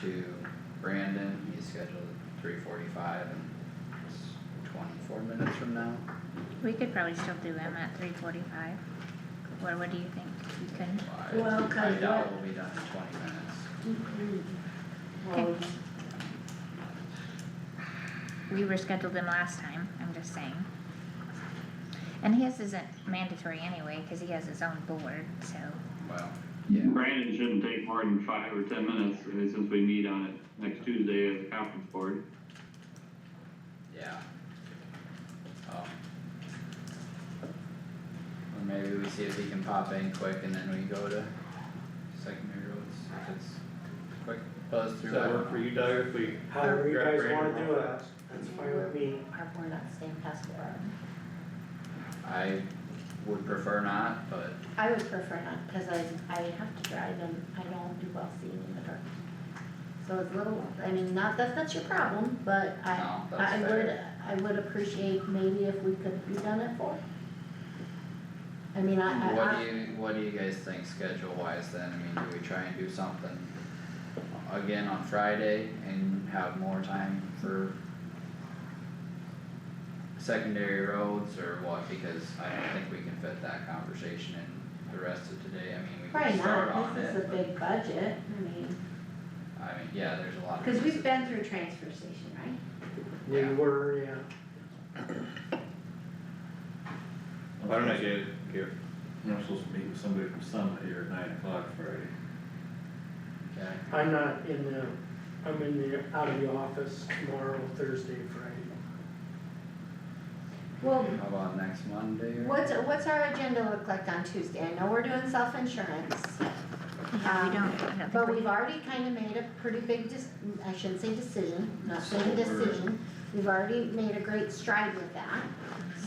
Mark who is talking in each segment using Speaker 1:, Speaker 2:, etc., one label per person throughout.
Speaker 1: to Brandon, he's scheduled three forty-five and it's twenty-four minutes from now.
Speaker 2: We could probably still do them at three forty-five. What, what do you think? You can,
Speaker 1: I-
Speaker 3: Well, 'cause
Speaker 1: I doubt
Speaker 3: what-
Speaker 1: we'll be done in twenty minutes.
Speaker 3: Well,
Speaker 2: we rescheduled them last time, I'm just saying. And his isn't mandatory anyway, cause he has his own board, so,
Speaker 1: Well, yeah,
Speaker 4: Brandon shouldn't take more than five or ten minutes, uh, since we meet on it next Tuesday as a conference board.
Speaker 1: yeah. Um. Or maybe we see if he can pop in quick and then we go to secondary roads if it's quick buzz through.
Speaker 5: Does that work for you, Doug, if we?
Speaker 6: However you
Speaker 5: grab
Speaker 6: guys
Speaker 5: Brandon
Speaker 6: wanna
Speaker 5: real
Speaker 6: do it,
Speaker 5: fast?
Speaker 6: that's fine with me.
Speaker 3: Are we not staying past four?
Speaker 1: I would prefer not, but
Speaker 3: I would prefer not, cause I, I have to drive and I don't do well seeing in the dark. So it's a little, I mean, not that that's your problem, but I,
Speaker 1: no, that's
Speaker 3: I would,
Speaker 1: fair.
Speaker 3: I would appreciate maybe if we could be done at four. I mean, I, I,
Speaker 1: What
Speaker 3: I-
Speaker 1: do you, what do you guys think schedule wise then? I mean, do we try and do something again on Friday and have more time for secondary roads or what? Because I don't think we can fit that conversation in the rest of today. I mean, we
Speaker 3: probably
Speaker 1: can start
Speaker 3: not,
Speaker 1: on
Speaker 3: this
Speaker 1: it.
Speaker 3: is a big budget, I mean,
Speaker 1: but, I mean, yeah, there's a lot of.
Speaker 3: cause we've
Speaker 1: pieces.
Speaker 3: been through transfer station, right?
Speaker 1: Yeah.
Speaker 6: We were, yeah.
Speaker 5: Why don't I get, give,
Speaker 7: I'm supposed to meet with somebody from Summit here at nine o'clock Friday.
Speaker 1: Okay,
Speaker 6: I'm not in the, I'm in the, out of the office tomorrow, Thursday, Friday.
Speaker 3: Well,
Speaker 1: how about next Monday or?
Speaker 3: What's, what's our agenda look like on Tuesday? I know we're doing self-insurance,
Speaker 2: yeah, we
Speaker 3: Um,
Speaker 2: don't, I don't think
Speaker 3: but
Speaker 2: we-
Speaker 3: we've already kind of made a pretty big dis- I shouldn't say decision, not saying
Speaker 7: That's what we're-
Speaker 3: decision. We've already made a great stride with that,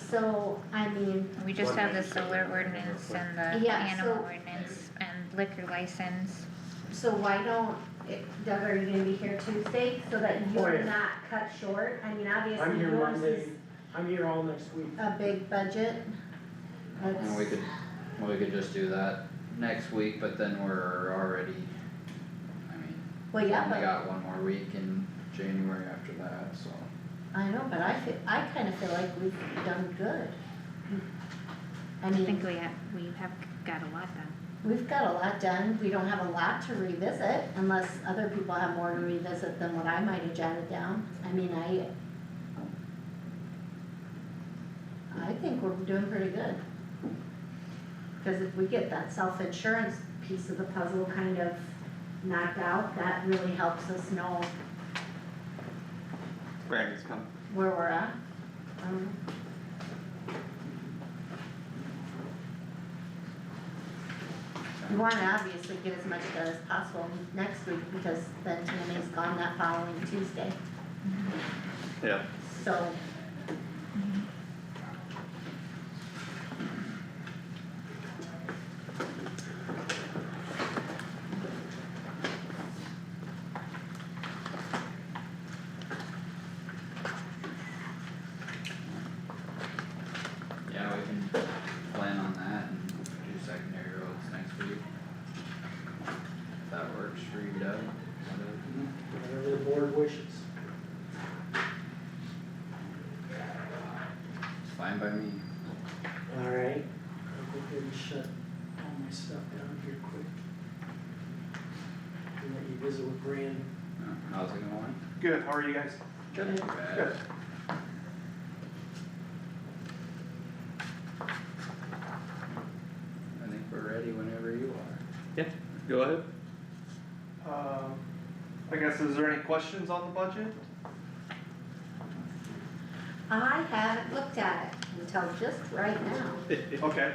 Speaker 3: so, I mean,
Speaker 2: we just
Speaker 5: One
Speaker 2: have the
Speaker 5: minute, so
Speaker 2: solar
Speaker 5: we're-
Speaker 2: ordinance and the
Speaker 3: Yeah,
Speaker 2: animal
Speaker 3: so-
Speaker 2: ordinance and liquor license.
Speaker 3: so why don't, eh, Doug, are you gonna be here Tuesday so that
Speaker 6: Oh,
Speaker 3: you're
Speaker 6: yeah.
Speaker 3: not cut short? I mean,
Speaker 6: I'm
Speaker 3: obviously
Speaker 6: here
Speaker 3: yours
Speaker 6: Monday,
Speaker 3: is
Speaker 6: I'm here all next week.
Speaker 3: a big budget.
Speaker 1: And we could, we could just do that next week, but then we're already, I mean,
Speaker 3: Well,
Speaker 1: We
Speaker 3: yeah,
Speaker 1: only
Speaker 3: but,
Speaker 1: got one more week in January after that, so.
Speaker 3: I know, but I feel, I kind of feel like we've done good. I
Speaker 2: I
Speaker 3: mean.
Speaker 2: think we have, we have got a lot done.
Speaker 3: We've got a lot done, we don't have a lot to revisit unless other people have more to revisit than what I might have jotted down, I mean, I. I think we're doing pretty good. Cause if we get that self-insurance piece of the puzzle kind of knocked out, that really helps us know
Speaker 8: Brandon's coming.
Speaker 3: where we're at. Um, You wanna obviously get as much done as possible next week, because then Tammy's gone that following Tuesday,
Speaker 8: Yeah.
Speaker 3: so.
Speaker 1: Yeah, we can plan on that and do secondary roads next week. If that works for you, Doug. whatever.
Speaker 6: Whatever the board wishes.
Speaker 1: It's fine by me.
Speaker 6: Alright. I'll go ahead and shut all my stuff down here quick. And let you visit with Brandon.
Speaker 1: Uh, How's it going?
Speaker 8: Good, how are you guys?
Speaker 1: Not too bad.
Speaker 8: Good.
Speaker 1: I think we're ready whenever you are.
Speaker 8: Go ahead. Uh, I guess, is there any questions on the budget?
Speaker 3: I haven't looked at it until just right now.
Speaker 8: Okay.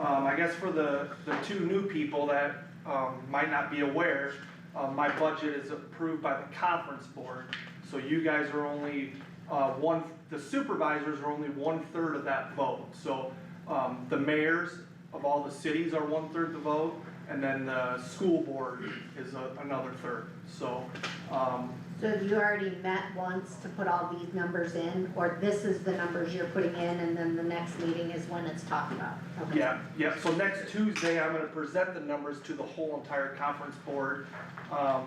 Speaker 8: Um, I guess for the, the two new people that, um, might not be aware, um, my budget is approved by the conference board. So you guys are only, uh, one, the supervisors are only one-third of that vote. So, um, the mayors of all the cities are one-third the vote, and then the school board is a- another third. So, um,
Speaker 3: So have you already met once to put all these numbers in, or this is the numbers you're putting in, and then the next meeting is when it's talked about? Okay.
Speaker 8: Yeah, yeah, so next Tuesday, I'm gonna present the numbers to the whole entire conference board. Um,